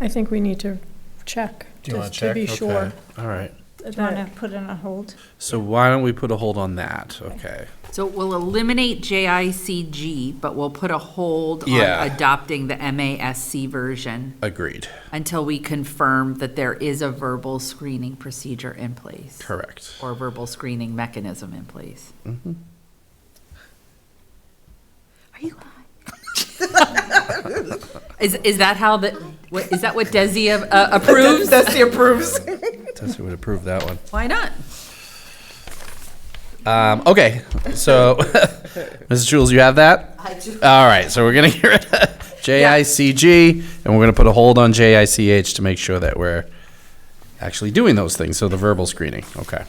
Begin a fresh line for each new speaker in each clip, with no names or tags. I think we need to check,
Do you want
just to
to check?
be sure.
Okay. All right.
Do you want to put in a hold?
So why don't we put a hold on that? Okay.
So we'll eliminate JICG, but we'll put a hold on
Yeah.
adopting the MASC version
Agreed.
until we confirm that there is a verbal screening procedure in place.
Correct.
Or verbal screening mechanism in place.
Mm-hmm.
Are you high? Is, is that how the, what, is that what Desi a- a- approves? Desi approves.
Tessie would approve that one.
Why not?
Um, okay. So, Mrs. Jules, you have that?
I do.
All right. So we're going to get rid of JICG and we're going to put a hold on JICH to make sure that we're actually doing those things. So the verbal screening. Okay.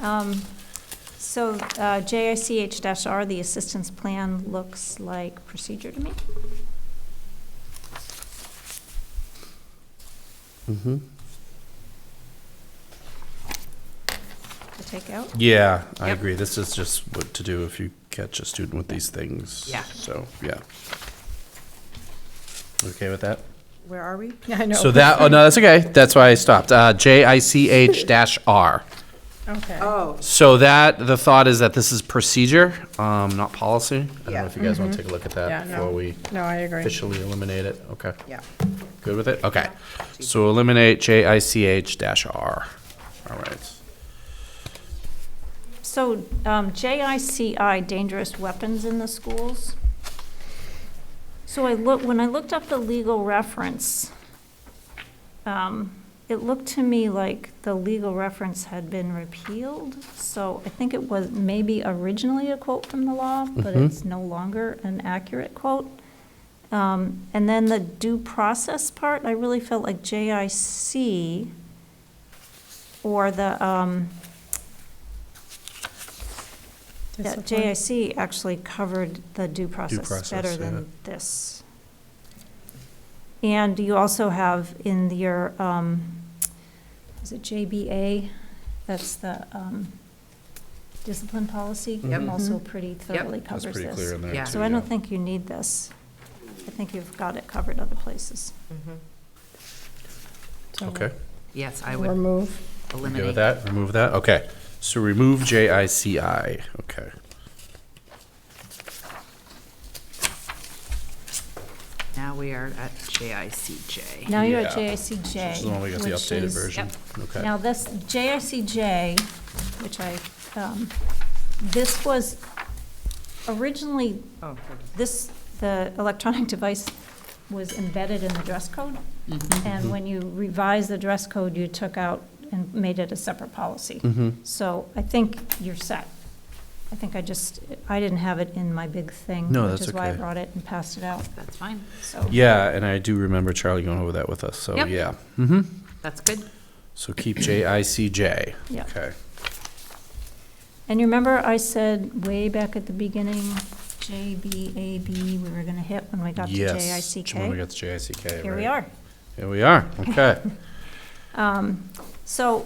Um, So uh, JICH-R, the assistance plan, looks like procedure to me.
Mm-hmm.
To take out.
Yeah, I
Yep.
agree. This is just what to do if you catch a student with these things.
Yeah.
So, yeah. Okay with that?
Where are we?
I know.
So that, oh, no, that's okay. That's why I stopped. Uh, JICH dash R.
Okay.
Oh,
So that, the thought is that this is procedure, um, not policy. I don't know
Yeah.
if you guys want to take a look at
Yeah,
that
no.
before we
No, I agree.
officially eliminate it. Okay.
yeah.
Good with it? Okay. So eliminate JICH dash R. All right.
So um, JICI, dangerous weapons in the schools. So I look, when I looked up the legal reference, um, it looked to me like the legal reference had been repealed. So I think it was maybe originally a quote from the law, but
Mhm.
it's no longer an accurate quote. Um, And then the due process part, I really felt like JIC or the, um, that
Discipline.
JIC actually covered the due process
process,
better
yeah.
than this. And you also have in your, um, is it JBA? That's the, um, discipline policy,
Yep.
also pretty thoroughly
Mm-hmm. That's
covers this.
pretty clear in there.
Yeah.
too,
So I
yeah.
don't think you need this. I think you've got it covered other places.
So
Okay.
Yes, I would
Remove.
You Good with
eliminate.
that? Remove that? Okay. So remove JICI. Okay.
Now we are at JICJ.
Now you're at
Yeah.
JICJ.
This is the one we got the
which
updated
is-
version. Okay.
Now, this JICJ, which I, um, this was originally,
Oh, good.
this, the electronic device was embedded in the dress code. And when you revised the dress code, you took out and made it a separate policy.
Mm-hmm.
So I think you're set. I think I just, I didn't have it in my big thing.
No,
Which
that's
is why I
okay.
brought it and passed it out,
That's fine.
so.
Yeah, and I do remember Charlie going over that with us, so
Yep.
yeah. Mm-hmm.
That's good.
So keep JICJ.
Yep.
Okay.
And you remember I said way back at the beginning, JBAB, we were gonna hit when we got to
Yes. When we
JICK?
got the JICK,
Here we
right.
are.
Here we are. Okay.
Um, So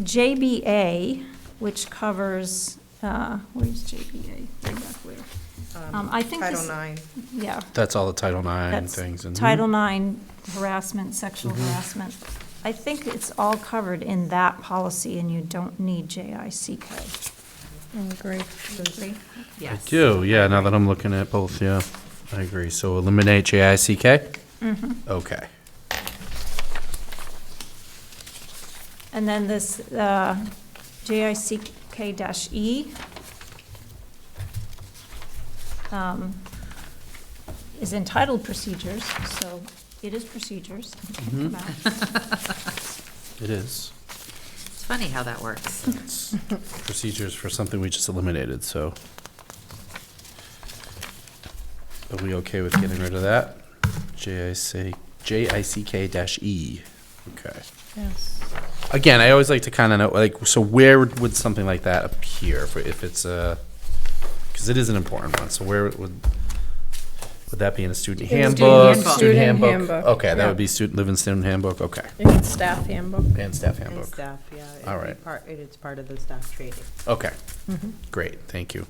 JBA, which covers, uh, where's JBA? Way back where? Um, I think
Title
this-
IX.
Yeah,
That's all the Title IX
that's
things. Mm-hmm. and-
Title IX harassment, sexual harassment. I think it's all covered in that policy and you don't need JICK.
I agree.
Agree?
I
Yes.
do, yeah, now that I'm looking at both, yeah. I agree. So eliminate JICK?
Mm-hmm.
Okay.
And then this uh, JICK-E. um, Is entitled procedures, so it is procedures. it can come out.
It is.
It's funny how that works.
It's procedures for something we just eliminated, so. Are we okay with getting rid of that? JIC, JICK dash E, okay.
Yes.
Again, I always like to kind of know, like, so where would would something like that appear if- if it's a, because it is an important one, so where would, would that be in a student
In student
handbook?
handbook.
Student
Student
handbook,
handbook,
okay, that
yeah.
would be student, live in student handbook, okay,
And staff handbook.
and staff
And
handbook,
staff, yeah. it'd
All
be
right.
part- It is part of the staff training.
okay. Great, thank you.